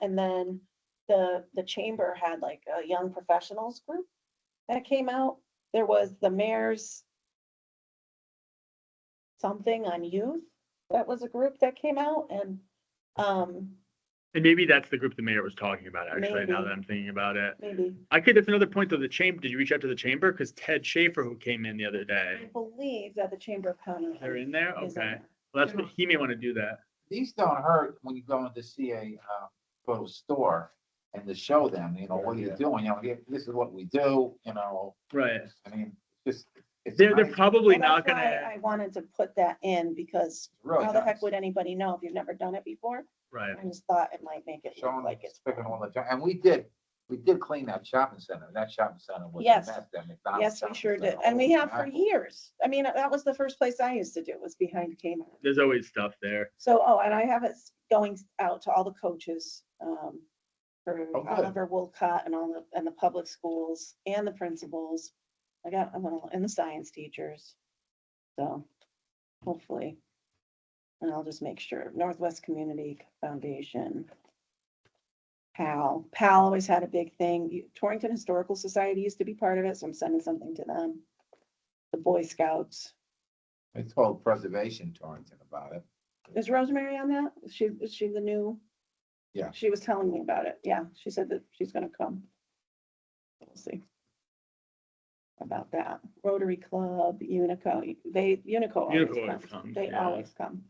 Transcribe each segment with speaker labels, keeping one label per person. Speaker 1: And then the, the chamber had like a young professionals group that came out. There was the mayor's something on youth. That was a group that came out and, um,
Speaker 2: And maybe that's the group the mayor was talking about, actually, now
Speaker 1: Maybe.
Speaker 2: that I'm thinking about it.
Speaker 1: maybe,
Speaker 2: I could, that's another point though, the chamber, did you reach out to the chamber? Because Ted Schaefer, who came in the other
Speaker 1: I
Speaker 2: day,
Speaker 1: believe that the Chamber of Commerce.
Speaker 2: they're in there?
Speaker 1: is on
Speaker 2: Okay.
Speaker 1: there.
Speaker 2: Well, that's, what- he may want to do that.
Speaker 3: These don't hurt when you go into see a, uh, go to a store and to show them, you know, what you're doing, you know, here- this is what we do, you know,
Speaker 2: Right.
Speaker 3: I mean, just. it's
Speaker 2: They're, they're
Speaker 3: nice,
Speaker 2: probably
Speaker 1: Well,
Speaker 2: not
Speaker 1: that's why
Speaker 2: gonna, Oh,
Speaker 1: I wanted to put that in because
Speaker 3: really
Speaker 1: how the heck
Speaker 3: nice.
Speaker 1: would anybody know if you've never done it before?
Speaker 2: right.
Speaker 1: I just thought it might make it
Speaker 3: Showing
Speaker 1: look
Speaker 3: like
Speaker 1: like it's.
Speaker 3: it's picking all the time, and we did, we did clean that shopping center, that shopping center was a
Speaker 1: Yes.
Speaker 3: mess, that McDonald's.
Speaker 1: Yes, we
Speaker 3: shopping
Speaker 1: sure did.
Speaker 3: center
Speaker 1: And we
Speaker 3: was a
Speaker 1: have for
Speaker 3: mess.
Speaker 1: years. I mean, that was the first place I used to do was behind Kmart.
Speaker 2: There's always stuff there.
Speaker 1: So, oh, and I have it s- going out to all the coaches, um, for
Speaker 3: Oh, good.
Speaker 1: Oliver Wilcott and all the, and the public schools and the principals. I got, I'm gonna, and the science teachers. So hopefully. And I'll just make sure Northwest Community Foundation. PAL, PAL always had a big thing. You- Torrington Historical Society used to be part of it, so I'm sending something to them. The Boy Scouts.
Speaker 3: I told Preservation Torrington about it.
Speaker 1: Is Rosemary on that? Is she, is she the new?
Speaker 3: Yeah.
Speaker 1: She was telling me about it. Yeah, she said that she's gonna come. We'll see. About that. Rotary Club, Unico, they, Unico
Speaker 2: Unico
Speaker 1: always
Speaker 2: always
Speaker 1: comes.
Speaker 2: comes,
Speaker 1: They
Speaker 2: yeah.
Speaker 1: always come.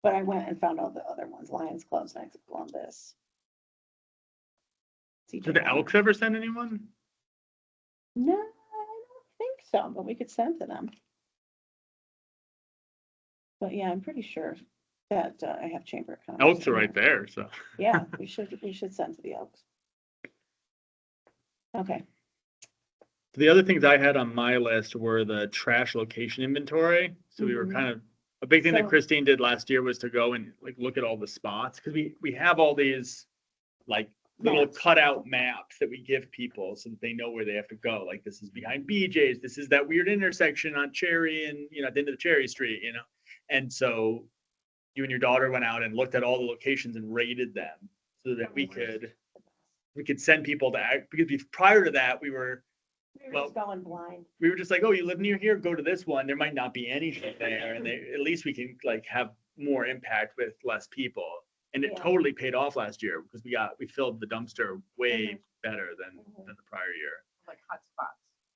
Speaker 1: But I went and found all the other ones, Lions Club's next to Columbus.
Speaker 2: Did the Elks ever send anyone?
Speaker 1: No, I don't think so, but we could send to them. But yeah, I'm pretty sure that uh, I have Chamber of Commerce.
Speaker 2: Elks are
Speaker 1: on
Speaker 2: right
Speaker 1: there.
Speaker 2: there, so.
Speaker 1: Yeah, we should, we should send to the Elks. Okay,
Speaker 2: The other things I had on my list were the trash location inventory. So we were
Speaker 1: Mhm.
Speaker 2: kind of, a big thing that
Speaker 1: So-
Speaker 2: Christine did last year was to go and like look at all the spots, because we, we have all these like little
Speaker 1: Maps.
Speaker 2: cutout maps that we give people so that they know where they have to go. Like this is behind BJ's, this is that weird intersection on Cherry and, you know, at the end of Cherry Street, you know? And so you and your daughter went out and looked at all the locations and rated them so that we
Speaker 1: Oh, nice.
Speaker 2: could, we could send people to act, because we- prior to that, we were
Speaker 1: we were
Speaker 2: Well-
Speaker 1: just going blind.
Speaker 2: we were just like, oh, you live near here, go to this one. There might not be anything there, and they, at least we can like have more impact with less people. And it
Speaker 1: Yeah.
Speaker 2: totally paid off last year because we got we filled the dumpster way
Speaker 1: Mhm.
Speaker 2: better than
Speaker 1: Mhm.
Speaker 2: than the prior year.
Speaker 4: like hotspots.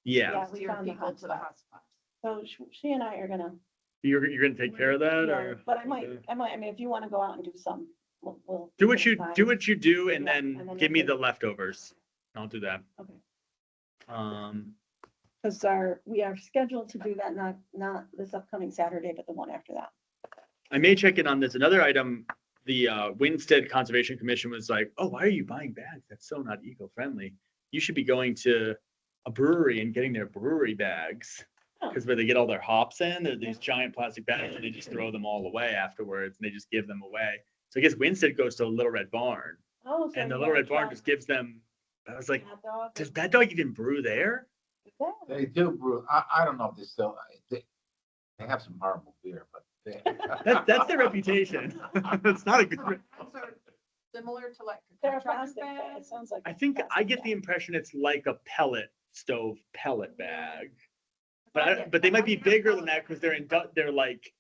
Speaker 2: Yeah,
Speaker 1: Yeah, we
Speaker 4: Steer
Speaker 1: found the
Speaker 4: people to the
Speaker 1: hotspots.
Speaker 4: hotspots.
Speaker 1: So sh- she and I are gonna,
Speaker 2: you're you're gonna take care of that,
Speaker 1: yeah,
Speaker 2: or
Speaker 1: but I might,
Speaker 2: Okay.
Speaker 1: I might, I mean, if you want to go out and do some, we'll, we'll.
Speaker 2: do
Speaker 1: we
Speaker 2: what
Speaker 1: can
Speaker 2: you
Speaker 1: find-
Speaker 2: do what you do, and
Speaker 1: Yeah,
Speaker 2: then
Speaker 1: and then
Speaker 2: give me
Speaker 1: if
Speaker 2: the
Speaker 1: it-
Speaker 2: leftovers. I'll do that.
Speaker 1: Okay.
Speaker 2: Um,
Speaker 1: Cause our, we are scheduled to do that, not, not this upcoming Saturday, but the one after that.
Speaker 2: I may check in on this. Another item, the uh, Winstead Conservation Commission was like, oh, why are you buying bags? That's so not eco-friendly. You should be going to a brewery and getting their brewery bags.
Speaker 1: Oh.
Speaker 2: Because where they get all their hops in, they're these giant plastic bags and they just throw them all away afterwards and they just give them away. So I guess Winstead goes to Little Red Barn
Speaker 1: Oh, so
Speaker 2: and the
Speaker 1: you
Speaker 2: Little
Speaker 1: wanna
Speaker 2: Red Barn
Speaker 1: try
Speaker 2: just gives them, I was like,
Speaker 1: hot dog
Speaker 2: does
Speaker 1: and-
Speaker 2: that dog even brew there?
Speaker 1: Yeah.
Speaker 3: They do brew, I, I don't know if they still, they, they have some horrible beer, but they.
Speaker 2: That, that's their reputation. That's not a good. re-
Speaker 4: Hotspots are Similar to like.
Speaker 1: They're a
Speaker 4: contractor
Speaker 1: plastic bag. It
Speaker 4: bags.
Speaker 1: sounds like.
Speaker 2: I
Speaker 1: a
Speaker 2: think I
Speaker 1: plastic
Speaker 2: get
Speaker 1: bag.
Speaker 2: the impression it's like a pellet stove pellet bag. But
Speaker 4: I
Speaker 2: I,
Speaker 4: get-
Speaker 2: but they
Speaker 4: I
Speaker 2: might be
Speaker 4: get a
Speaker 2: bigger than
Speaker 4: pellet
Speaker 2: that because they're in, they're like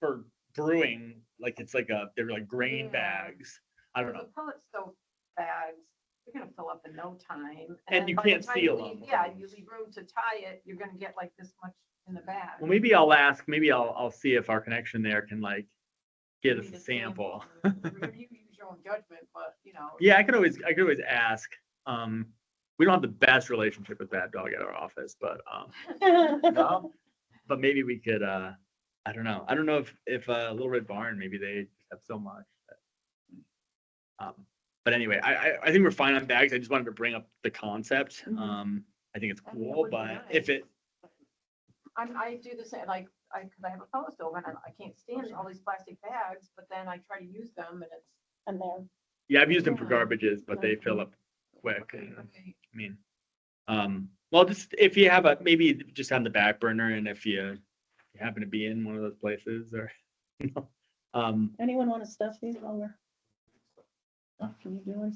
Speaker 2: for brewing, like it's like a, they're like grain
Speaker 4: Yeah.
Speaker 2: bags. I don't
Speaker 4: The
Speaker 2: know.
Speaker 4: Pellet stove bags, they're gonna fill up in no time.
Speaker 2: And you
Speaker 4: by the
Speaker 2: can't
Speaker 4: time you
Speaker 2: seal
Speaker 4: leave-
Speaker 2: them.
Speaker 4: Yeah, you leave room to tie it, you're gonna get like this much in the bag.
Speaker 2: Well, maybe I'll ask, maybe I'll, I'll see if our connection there can like get us
Speaker 4: Maybe
Speaker 2: a
Speaker 4: the
Speaker 2: sample.
Speaker 4: Remember, You use your own judgment, but you know.
Speaker 2: Yeah, I could always, I could always ask. Um, we don't have the best relationship with that dog at our office, but, um,
Speaker 3: No?
Speaker 2: but maybe we could, uh, I don't know. I don't know if, if, uh, Little Red Barn, maybe they have so much. that- Um, but anyway, I, I, I think we're fine on bags. I just wanted to bring up the concept.
Speaker 1: Mhm.
Speaker 2: Um, I think it's
Speaker 4: Mm-hmm. I mean, it
Speaker 2: cool,
Speaker 4: would be
Speaker 2: but if
Speaker 4: nice.
Speaker 2: it,
Speaker 4: I'm, I do the same, like, I, cause I have a pellet stove and I- I can't stand all these plastic bags, but then I try to use them and it's.
Speaker 1: And there,
Speaker 2: yeah, I've used them for
Speaker 4: Yeah.
Speaker 2: garbages, but they
Speaker 1: Mhm.
Speaker 2: fill up quick.
Speaker 4: okay,
Speaker 2: and-
Speaker 4: okay.
Speaker 2: I mean, um, well, just if you have a, maybe just on the back burner and if you you happen to be in one of those places or, you know, um,
Speaker 1: anyone want to stuff these while we're Can you do it?